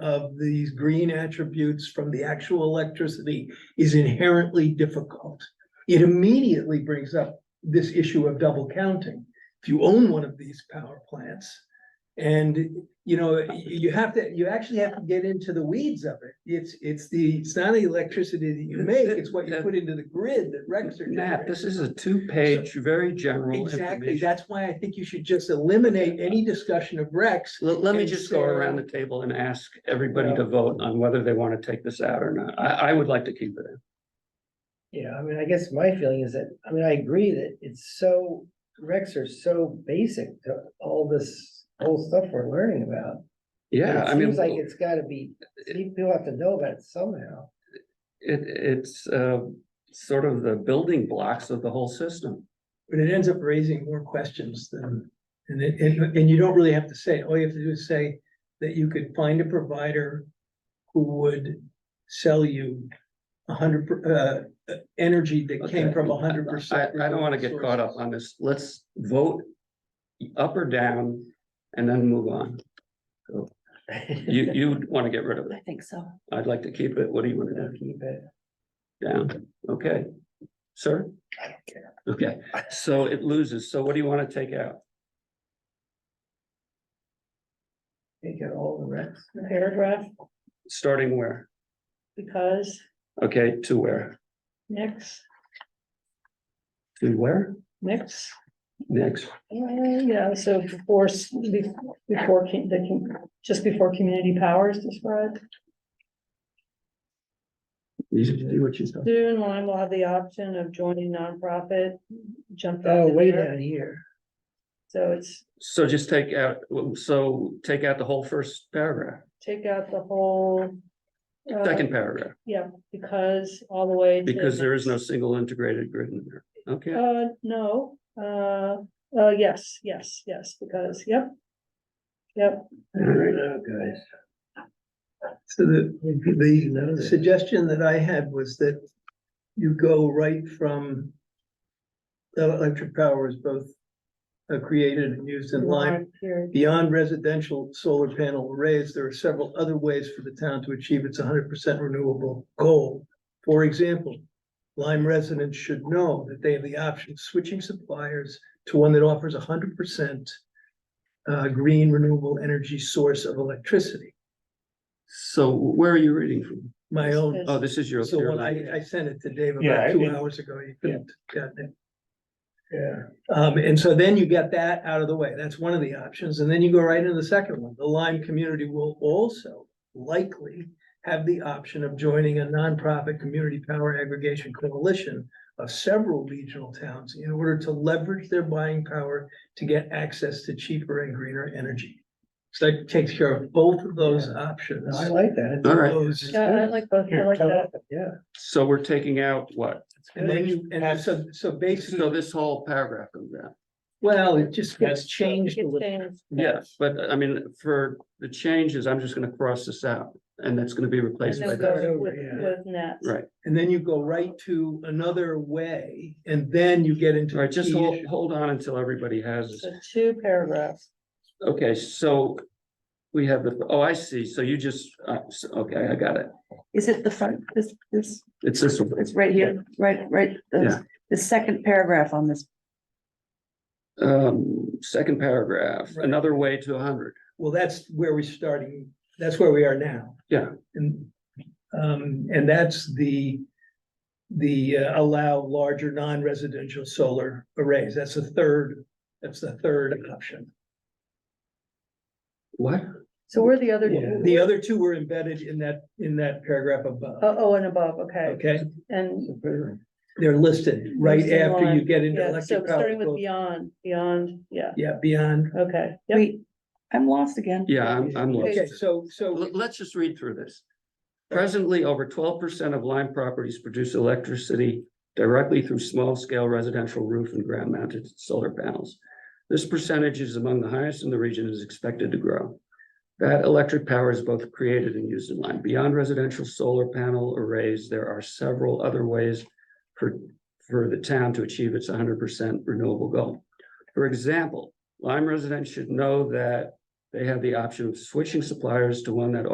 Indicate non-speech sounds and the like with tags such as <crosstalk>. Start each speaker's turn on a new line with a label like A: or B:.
A: of these green attributes from the actual electricity is inherently difficult. It immediately brings up this issue of double counting. If you own one of these power plants. And, you know, y- you have to, you actually have to get into the weeds of it. It's, it's the, it's not the electricity that you make, it's what you put into the grid that wrecks are
B: Matt,
A: generating.
B: this is a two-page, very general
A: Exactly,
B: information.
A: that's why I think you should just eliminate any discussion of Rex.
B: Let, let me
A: and
B: just go
A: Sarah-
B: around the table and ask everybody to vote on whether they want to take this out or not. I, I would like to keep it in.
C: Yeah, I mean, I guess my feeling is that, I mean, I agree that it's so, recs are so basic to all this whole stuff we're learning about. And
B: Yeah,
C: it
B: I mean,
C: Seems like
B: it,
C: it's gotta be, people have to know about it somehow.
B: it's, uh, sort of the building blocks of the whole system.
A: But it ends up raising more questions than, and it, and, and you don't really have to say, it. all you have to do is say that you could find a provider who would sell you a hundred, per- uh, uh, energy that came
B: Okay.
A: from a hundred
B: I,
A: percent.
B: I don't want to get caught up on this. Let's vote up or down and then move on. You, you want to get rid of it.
D: I think so.
B: I'd like to keep it. What do you want to do?
C: <laughs> Keep it.
B: Down, okay. Sir?
C: I don't care.
B: Okay, so it loses. So what do you want to take out?
C: Take out all the recs.
D: The paragraph,
B: Starting where?
D: because
B: Okay, to where?
D: next,
B: To where?
D: next,
B: Next.
D: yeah, so before, s- be- before, com- the com- just before community powers described.
B: You do what you said.
D: Soon Lyme will have the option of joining nonprofit, jump. that
C: Oh,
D: in
C: way
D: there.
C: down here.
D: So it's,
B: So just take out, so take out the whole first paragraph,
D: take out the whole. uh,
B: second paragraph,
D: Yeah, because all the way. to
B: because there is no
D: next.
B: single integrated grid in there. Okay,
D: Uh, no, uh, uh, yes, yes, yes, because, yep. Yep,
B: all right.
C: No, guys.
A: So the, the,
C: You know
A: The
C: this.
A: suggestion that I had was that you go right from the electric power is both uh, created and used in Lyme.
D: Period.
A: Beyond residential solar panel arrays, there are several other ways for the town to achieve its hundred percent renewable goal. For example, Lyme residents should know that they have the option of switching suppliers to one that offers hundred percent uh, green renewable energy source of electricity.
B: So where are you reading from?
A: My own
B: Oh, this is your.
A: so
B: your
A: when
B: line.
A: I, I sent it to Dave
C: Yeah,
A: about two
C: it-
A: hours ago, you couldn't, got it.
C: Yeah.
A: Um, and so then you get that out of the way. That's one of the options. And then you go right into the second one. The Lyme community will also likely have the option of joining a nonprofit community power aggregation coalition of several regional towns in order to leverage their buying power to get access to cheaper and greener energy. So that takes care of both of those
C: Yeah.
A: options.
C: No, I like that.
B: All right.
A: Those-
D: Yeah, I like both, I like that.
C: Yeah.
B: So we're taking out what?
A: And then you, and so, so basically.
B: So this whole paragraph of that.
A: Well, it just gets
E: That's
A: changed a
D: It's
A: little.
D: changed.
B: Yes, but uh, I mean, for the changes, I'm just gonna cross this out and that's gonna be
D: And
B: replaced by
D: then
B: that.
C: that.
D: go with,
C: Yeah.
D: with net.
B: Right,
A: And then you go right to another way and then you get into.
B: all right,
A: the
B: just
A: key
B: hold,
A: issue.
B: hold on until everybody has this.
D: So two paragraphs.
B: Okay, so we have the, oh, I see. So you just, uh, s- okay, I got it.
F: Is it the front, this, this,
B: It's this one.
F: it's right here, right, right,
B: Yeah.
F: the, the second paragraph on this,
B: Um, second paragraph,
A: Right.
B: another way to hundred.
A: Well, that's where we're starting, that's where we are now.
B: Yeah.
A: And, um, and that's the, the uh, allow larger non-residential solar arrays. That's the third, that's the third option.
B: What?
D: So where are the other?
C: Yeah.
A: The other two were embedded in that, in that paragraph above,
D: Oh, oh, and above, okay,
A: okay?
D: and,
A: They're listed right
D: Listed
A: after you
D: on-
A: get into
D: yeah, so
A: electric power.
D: starting with beyond, beyond, yeah,
A: Yeah, beyond.
D: okay, yep,
F: wait, I'm lost again.
B: Yeah, I'm, I'm lost.
A: Okay, so, so
B: Let- Let's just read through this. Presently, over twelve percent of Lyme properties produce electricity directly through small-scale residential roof and ground-mounted solar panels. This percentage is among the highest in the region and is expected to grow. That electric power is both created and used in Lyme. Beyond residential solar panel arrays, there are several other ways for, for the town to achieve its hundred percent renewable goal. For example, Lyme residents should know that they have the option of switching suppliers to one that